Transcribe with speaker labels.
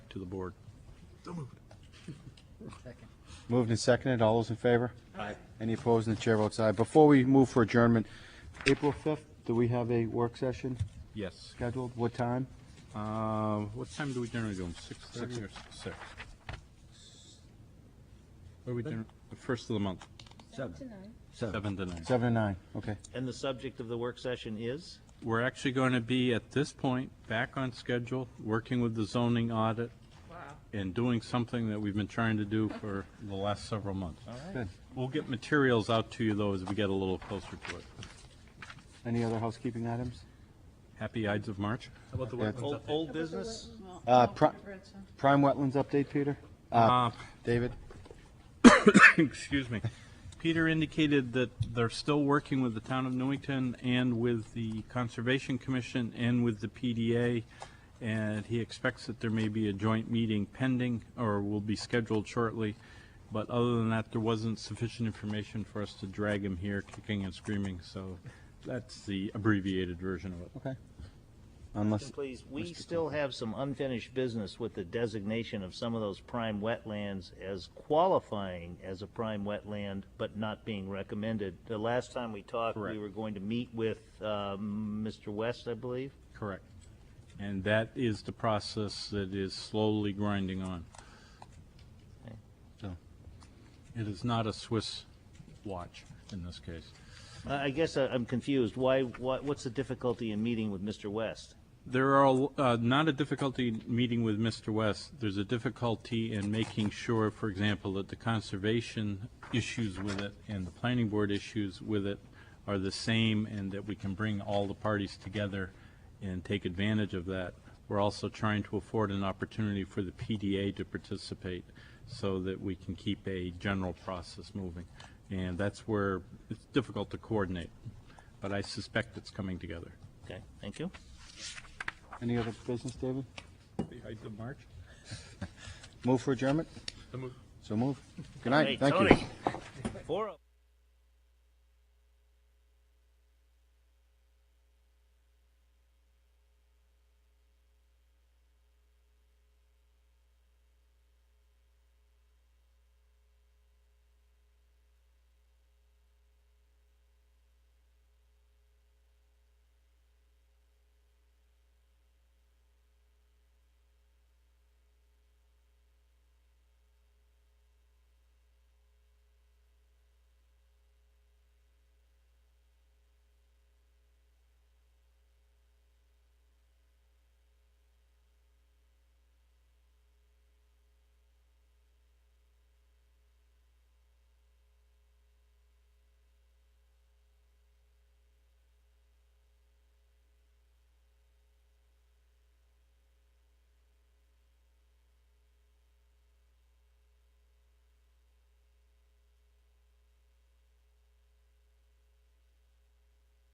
Speaker 1: to the board.
Speaker 2: Moved and seconded. All those in favor? Aye. Any opposed? And the chair votes aye. Before we move for adjournment, April 5th, do we have a work session
Speaker 1: Yes.
Speaker 2: scheduled? What time?
Speaker 1: Uh,
Speaker 2: Um,
Speaker 1: What time do we generally do them? Six thirty or six? What are we doing, the first of the month?
Speaker 3: Seven.
Speaker 1: Seven to nine.
Speaker 2: Seven and nine, okay.
Speaker 3: And the subject of the work session is?
Speaker 1: We're actually going to be, at this point, back on schedule, working with the zoning audit and doing something that we've been trying to do for the last several months.
Speaker 2: Good.
Speaker 1: We'll get materials out to you, though, as we get a little closer to it.
Speaker 2: Any other housekeeping items?
Speaker 1: Happy Ides of March.
Speaker 4: How about the
Speaker 2: Yeah.
Speaker 4: wetlands
Speaker 3: Old,
Speaker 4: update?
Speaker 3: old business?
Speaker 2: Uh, pri- Prime Wetlands update, Peter? Uh,
Speaker 1: Uh,
Speaker 2: David?
Speaker 1: Excuse me. Peter indicated that they're still working with the town of Newington and with the Conservation Commission and with the PDA, and he expects that there may be a joint meeting pending, or will be scheduled shortly. But other than that, there wasn't sufficient information for us to drag him here kicking and screaming, so that's the abbreviated version of it.
Speaker 2: Okay. Unless,
Speaker 3: Please, we still have some unfinished business with the designation of some of those prime wetlands as qualifying as a prime wetland, but not being recommended. The last time we talked, we
Speaker 1: Correct.
Speaker 3: were going to meet with, um, Mr. West, I believe.
Speaker 1: Correct. And that is the process that is slowly grinding on. So, it is not a Swiss watch in this case.
Speaker 3: I, I guess I- I'm confused. Why, what, what's the difficulty in meeting with Mr. West?
Speaker 1: There are, uh, not a difficulty meeting with Mr. West, there's a difficulty in making sure, for example, that the conservation issues with it and the planning board issues with it are the same, and that we can bring all the parties together and take advantage of that. We're also trying to afford an opportunity for the PDA to participate, so that we can keep a general process moving. And that's where it's difficult to coordinate, but I suspect it's coming together.
Speaker 3: Okay, thank you.
Speaker 2: any other business, David?
Speaker 1: The height of March?
Speaker 2: Move for adjournment? So move. So move. Good
Speaker 3: Hey,
Speaker 2: night, thank you.
Speaker 3: Tony. Four oh-